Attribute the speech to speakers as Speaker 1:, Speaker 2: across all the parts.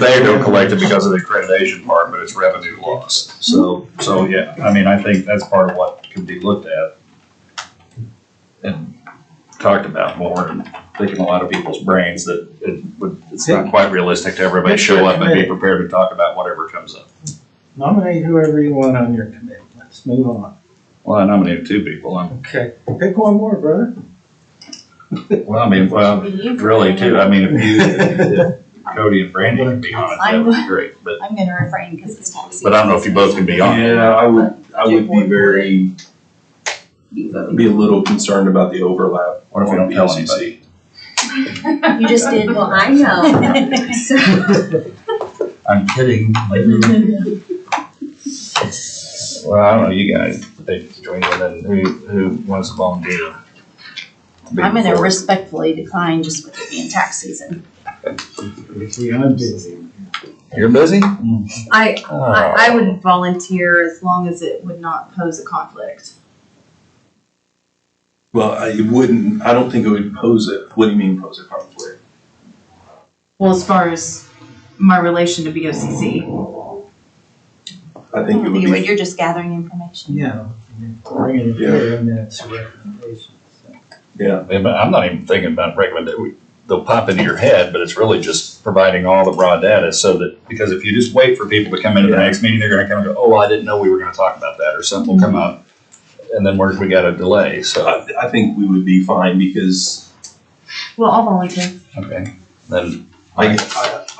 Speaker 1: They don't collect it because of the accreditation part, but it's revenue loss. So, so yeah, I mean, I think that's part of what could be looked at and talked about more and thinking a lot of people's brains that it would, it's not quite realistic to everybody show up and be prepared to talk about whatever comes up.
Speaker 2: Nominate whoever you want on your committee. Let's move on.
Speaker 1: Well, I nominated two people. I'm,
Speaker 2: Okay. Pick one more, brother.
Speaker 1: well, I mean, well, really two. I mean, if you, if Cody and Brandy can be on it, that would be great, but
Speaker 3: I'm gonna refrain because it's tax.
Speaker 1: But I don't know if you both can be on.
Speaker 4: Yeah, I would, I would be very, be a little concerned about the overlap.
Speaker 1: What if we don't
Speaker 4: on
Speaker 1: tell
Speaker 4: BCC.
Speaker 1: anybody?
Speaker 3: You just did.
Speaker 5: Well, I know. So,
Speaker 1: I'm kidding. Well, I don't know, you guys, they join in, and who, who wants to volunteer?
Speaker 3: I'm gonna respectfully decline just with it being tax season.
Speaker 2: I'm busy.
Speaker 1: You're busy?
Speaker 5: I,
Speaker 1: Oh.
Speaker 5: I, I would volunteer as long as it would not pose a conflict.
Speaker 4: Well, I it wouldn't, I don't think it would pose a, what do you mean pose a conflict?
Speaker 5: Well, as far as my relation to BOCC,
Speaker 4: I think it would
Speaker 3: You would,
Speaker 4: be,
Speaker 3: You're just gathering information.
Speaker 2: Yeah. Bringing it here and that's a recommendation. so.
Speaker 4: yeah,
Speaker 1: Oh. Yeah, but I'm not even thinking about recommending, they'll pop into your head, but it's really just providing all the raw data so that, because if you just wait for people to come into the next meeting, they're gonna come and go, oh, I didn't know we were gonna talk about that, or something will come
Speaker 5: Mm-hmm.
Speaker 1: up. And then we're, we got a delay, so,
Speaker 4: I, I think we would be fine because
Speaker 5: well, I'll volunteer.
Speaker 1: okay, then.
Speaker 4: I,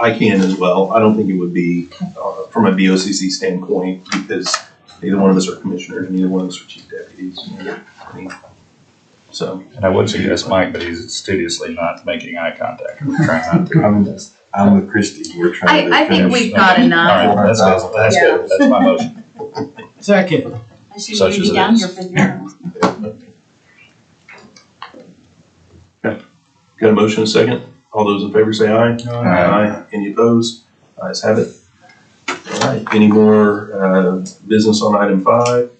Speaker 4: I, I can as well. I don't think it would be, uh, from a BOCC standpoint, because neither one of us are commissioners, neither one of us are chief deputies. neither- I mean, So,
Speaker 1: And I would suggest Mike, but he's studiously not making eye contact. I'm trying not to.
Speaker 6: I'm, I'm with Christie, we're trying to
Speaker 5: I, I think
Speaker 6: finish.
Speaker 5: we've got enough.
Speaker 7: Uh-huh.
Speaker 1: All right, that's good, that's good, that's my motion.
Speaker 2: Second.
Speaker 3: I should
Speaker 1: Such
Speaker 3: you
Speaker 1: as
Speaker 3: be
Speaker 1: it
Speaker 3: down
Speaker 1: is.
Speaker 3: here for the.
Speaker 4: got a motion, a second? All those in favor say aye. Aye. Any opposed? Ayes have it. All right, any more uh, business on item five?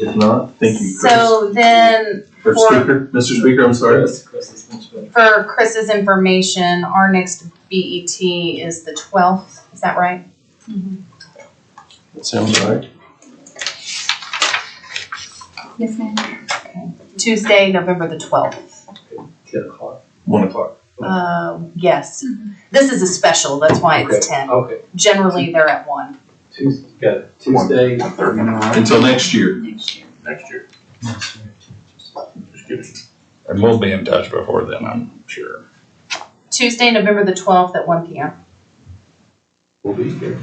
Speaker 4: If not, thank you, Chris.
Speaker 5: So then,
Speaker 4: Or
Speaker 5: for-
Speaker 4: Speaker, Mr. Speaker, I'm sorry.
Speaker 5: for Chris's information, our next BET is the twelfth, is that right?
Speaker 4: That sounds right.
Speaker 3: Yes, ma'am.
Speaker 5: Tuesday, November the twelfth.
Speaker 4: Ten o'clock. One o'clock.
Speaker 5: Uh, yes. This is a special, that's why it's ten.
Speaker 8: Okay,
Speaker 5: Generally, they're at one.
Speaker 8: Tuesday, got it. Tuesday,
Speaker 4: Until next year.
Speaker 3: Next year.
Speaker 8: next year.
Speaker 1: And we'll be in touch before then, I'm sure.
Speaker 5: Tuesday, November the twelfth at one P M.
Speaker 8: We'll be here.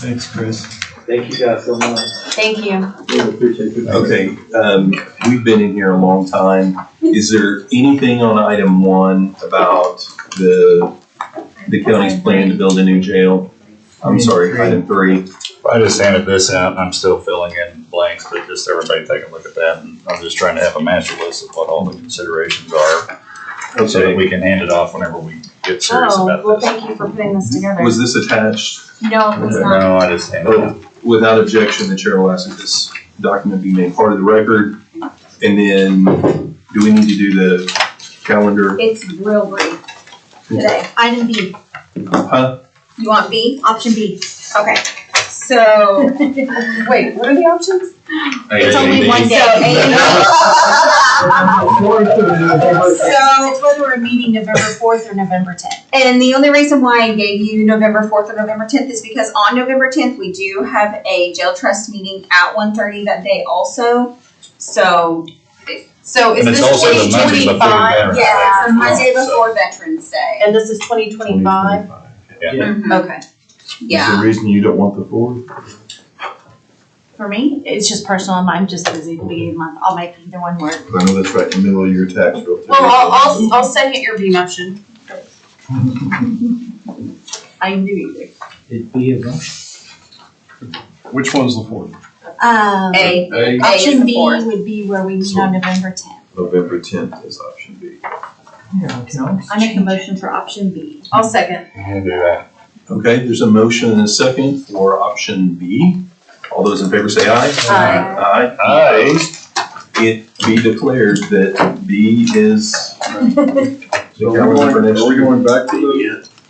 Speaker 2: Thanks, Chris.
Speaker 8: Thank you guys so much.
Speaker 5: Thank you.
Speaker 8: Really appreciate it.
Speaker 4: Okay, um, we've been in here a long time. Is there anything on item one about the, the county's plan to build a new jail? I'm sorry, item three.
Speaker 1: I just handed this out and I'm still filling in blanks, but just everybody take a look at that. And I'm just trying to have a master list of what all the considerations are so that
Speaker 4: Okay,
Speaker 1: we can hand it off whenever we get serious
Speaker 5: Oh, well,
Speaker 1: about this.
Speaker 5: thank you for putting this together.
Speaker 4: was this attached?
Speaker 3: No, it was not.
Speaker 1: No, I just handed it out.
Speaker 4: Oh, Without objection, the chair will ask that this document be made part of the record. And then, do we need to do the calendar?
Speaker 7: It's real brief today. Item B,
Speaker 4: Huh?
Speaker 7: you want B? Option B.
Speaker 5: Okay, so, wait, what are the options?
Speaker 7: It's only one day.
Speaker 5: So- Oh.
Speaker 7: So,
Speaker 3: It's whether we're meeting November fourth or November tenth.
Speaker 7: and the only reason why I gave you November fourth or November tenth is because on November tenth, we do have a jail trust meeting at one thirty that day also. So,
Speaker 5: So is
Speaker 1: And it's
Speaker 5: this
Speaker 1: also the Monday
Speaker 5: twenty
Speaker 1: before
Speaker 5: twenty-five?
Speaker 1: Veterans Day.
Speaker 7: yeah, it's the Monday
Speaker 1: So-
Speaker 7: before Veterans Day.
Speaker 5: And this is twenty twenty-five?
Speaker 7: Mhm.
Speaker 5: Okay.
Speaker 7: Yeah.
Speaker 6: reason you don't want the four?
Speaker 3: For me, it's just personal. I'm just busy at the beginning of the month. I'll make either one work.
Speaker 6: I know that's right in the middle of your tax bill.
Speaker 5: Well, I'll, I'll, I'll second your B motion.
Speaker 7: I knew you.
Speaker 2: It'd be a bunch.
Speaker 6: Which one's the fourth?
Speaker 3: Um,
Speaker 7: would.
Speaker 6: A,
Speaker 7: A, A is
Speaker 3: option
Speaker 7: the
Speaker 3: B
Speaker 7: fourth.
Speaker 3: would be where we meet on November tenth.
Speaker 6: November tenth is option B.
Speaker 2: Yeah, I can always
Speaker 3: I make a
Speaker 2: change.
Speaker 3: motion for option B.
Speaker 5: I'll second.
Speaker 1: I'll do that.
Speaker 4: Okay, there's a motion and a second for option B. All those in favor say aye. Aye.
Speaker 1: Aye.
Speaker 4: It be declared that B is the
Speaker 6: So we're
Speaker 4: calendar for
Speaker 6: going,
Speaker 4: next
Speaker 6: are we
Speaker 4: year.
Speaker 6: going back to the